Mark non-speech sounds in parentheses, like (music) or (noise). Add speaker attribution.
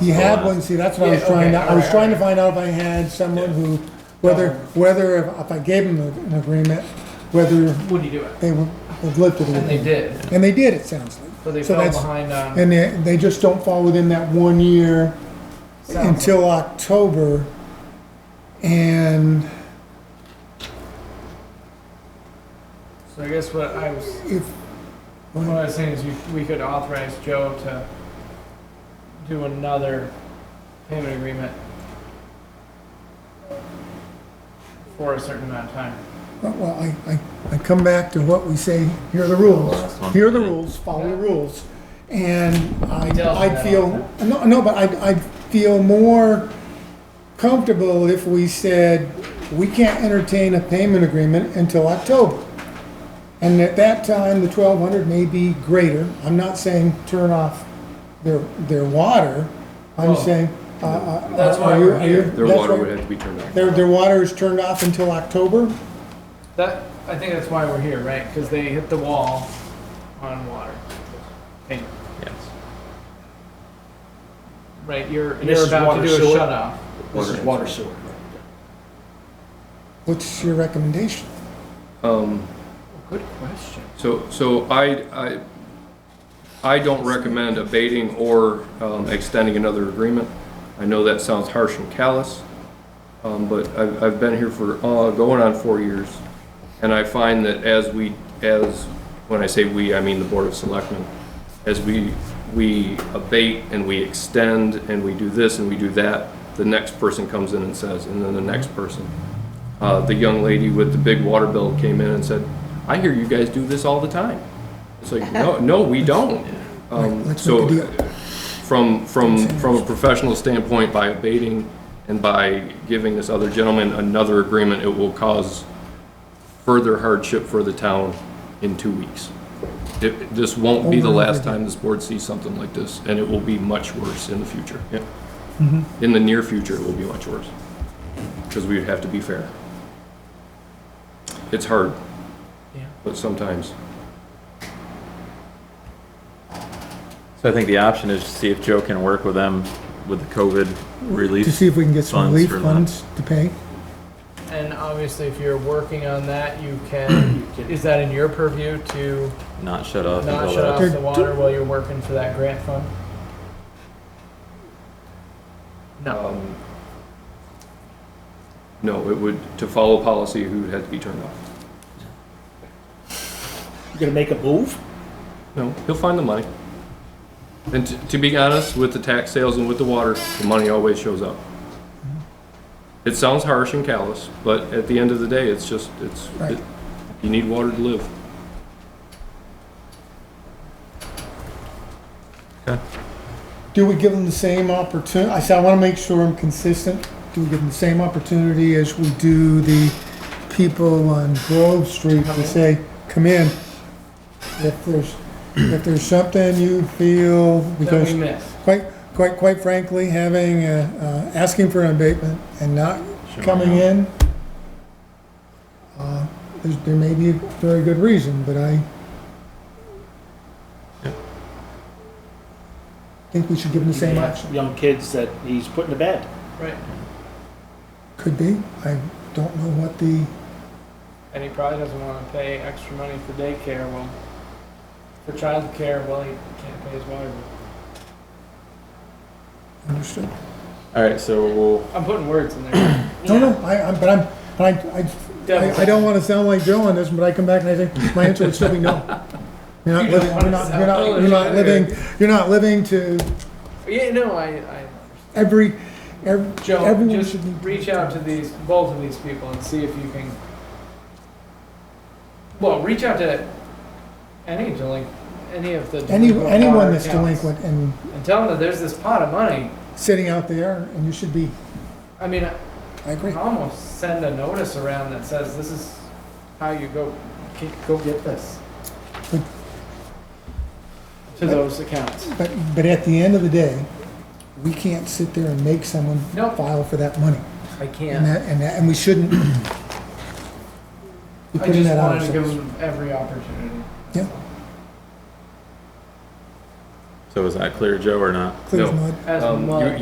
Speaker 1: He had one, see, that's what I was
Speaker 2: Yeah,
Speaker 1: trying
Speaker 2: okay,
Speaker 1: to, I was
Speaker 2: alright,
Speaker 1: trying to find out if I had someone who, whether, whether if- if I gave him an agreement, whether
Speaker 2: Would you do it?
Speaker 1: they would have lived it.
Speaker 2: And they did,
Speaker 1: And they did, it sounds like.
Speaker 2: but they
Speaker 1: So
Speaker 2: fell
Speaker 1: that's-
Speaker 2: behind on.
Speaker 1: And they, they just don't fall within that one year
Speaker 2: sound.
Speaker 1: until October. And
Speaker 2: So I guess what I was,
Speaker 1: if,
Speaker 2: what I was saying is you, we could authorize Joe to do another payment agreement for a certain amount of time.
Speaker 1: well, I, I, I come back to what we say, here are the rules.
Speaker 3: Last one.
Speaker 1: Here are the rules, follow the rules. And I,
Speaker 2: He tells me
Speaker 1: I'd
Speaker 2: that
Speaker 1: feel,
Speaker 2: all
Speaker 1: no, no, but I'd, I'd feel more comfortable if we said, we can't entertain a payment agreement until October. And at that time, the twelve hundred may be greater. I'm not saying turn off their, their water. I'm
Speaker 2: Well,
Speaker 1: saying, uh, uh.
Speaker 2: that's
Speaker 1: are
Speaker 2: why
Speaker 1: you-
Speaker 2: we're
Speaker 1: are you-
Speaker 2: here.
Speaker 3: Their
Speaker 1: that's
Speaker 3: water
Speaker 1: why-
Speaker 3: would have to be turned off.
Speaker 1: Their, their water is turned off until October?
Speaker 2: That, I think that's why we're here, right? Because they hit the wall on water. Hey,
Speaker 3: Yes.
Speaker 2: Right, you're,
Speaker 4: And this
Speaker 2: you're
Speaker 4: is
Speaker 2: about to
Speaker 4: water
Speaker 2: do a
Speaker 4: sewer?
Speaker 2: shut off.
Speaker 4: This is
Speaker 3: Water.
Speaker 4: water sewer.
Speaker 1: What's your recommendation?
Speaker 3: Um,
Speaker 2: Good question.
Speaker 3: so, so I, I, I don't recommend abating or, um, extending another agreement. I know that sounds harsh and callous, um, but I've, I've been here for, uh, going on four years. And I find that as we, as, when I say we, I mean the Board of Selectmen, as we, we abate and we extend and we do this and we do that, the next person comes in and says, and then the next person. Uh, the young lady with the big water bill came in and said, I hear you guys do this all the time. It's like, no, no, we don't. Um,
Speaker 1: Let's
Speaker 3: so
Speaker 1: make a deal.
Speaker 3: from, from, from a professional standpoint, by abating and by giving this other gentleman another agreement, it will cause further hardship for the town in two weeks. It, this won't be the
Speaker 1: Over and over
Speaker 3: last
Speaker 1: again.
Speaker 3: time this board sees something like this, and it will be much worse in the future. Yeah. In the near future, it will be much worse, because we would have to be fair. It's hard.
Speaker 2: Yeah.
Speaker 3: But sometimes.
Speaker 5: So I think the option is to see if Joe can work with them with the COVID
Speaker 1: To
Speaker 5: relief.
Speaker 1: see if we can get some
Speaker 5: funds
Speaker 1: relief
Speaker 5: for that.
Speaker 1: funds to pay?
Speaker 2: And obviously, if you're working on that, (coughs) you can, is that in your purview to
Speaker 5: Not shut off
Speaker 2: not
Speaker 5: until
Speaker 2: shut
Speaker 5: that.
Speaker 2: off the water while you're working for that grant fund? No,
Speaker 3: um, No, it would, to follow policy, who would have to be turned off?
Speaker 4: You gonna make a move?
Speaker 3: No, he'll find the money. And t- to be honest, with the tax sales and with the water, the money always shows up. It sounds harsh and callous, but at the end of the day, it's just, it's,
Speaker 1: Right.
Speaker 3: it- you need water to live.
Speaker 1: Do we give them the same opportunity? I said, I want to make sure I'm consistent. Do we give them the same opportunity as we do the people on Grove Street to say, come in? If there's, if there's something you feel,
Speaker 2: that we
Speaker 1: because
Speaker 2: missed.
Speaker 1: quite, quite, quite frankly, having, uh, uh, asking for an abatement and not coming in, uh, there's, there may be a very good reason, but I think we should give them the same option.
Speaker 4: Young kids that he's putting to bed.
Speaker 2: Right,
Speaker 1: Could be. I don't know what the,
Speaker 2: and he probably doesn't wanna pay extra money for daycare, well, for childcare, well, he can't pay his water bill.
Speaker 1: understood.
Speaker 5: All right, so we'll,
Speaker 2: I'm putting words in there.
Speaker 1: No, no, I, I, but I'm, but I, I, I- I don't wanna sound like Joe on this, but I come back and I think, my answer would still be
Speaker 2: (laughs)
Speaker 1: no. You're not
Speaker 2: You don't
Speaker 1: living, you're not, you're not,
Speaker 2: wanna
Speaker 1: you're not
Speaker 2: sound-
Speaker 1: living, you're not living to
Speaker 2: Yeah, no, I, I,
Speaker 1: every, every,
Speaker 2: Joe,
Speaker 1: Everyone
Speaker 2: just
Speaker 1: should be-
Speaker 2: reach out to these, both of these people and see if you can. Well, reach out to any delinquent, any of the.
Speaker 1: any,
Speaker 2: delinquent
Speaker 1: anyone
Speaker 2: water
Speaker 1: that's
Speaker 2: accounts
Speaker 1: delinquent and
Speaker 2: And tell them that there's this pot of money.
Speaker 1: sitting out there, and you should be,
Speaker 2: I mean,
Speaker 1: I agree.
Speaker 2: I almost send a notice around that says, this is how you go, g- go get this. To those accounts.
Speaker 1: But, but at the end of the day, we can't sit there and make someone
Speaker 2: Nope.
Speaker 1: file for that money.
Speaker 2: I
Speaker 1: And that, and that, and we shouldn't be
Speaker 2: I
Speaker 1: putting
Speaker 2: just
Speaker 1: that out
Speaker 2: wanted to give
Speaker 1: ourselves.
Speaker 2: them every opportunity.
Speaker 1: Yeah.
Speaker 6: So is that clear, Joe, or not?
Speaker 5: clears
Speaker 1: No.
Speaker 5: mud.
Speaker 2: As
Speaker 1: Um, you-
Speaker 2: mud.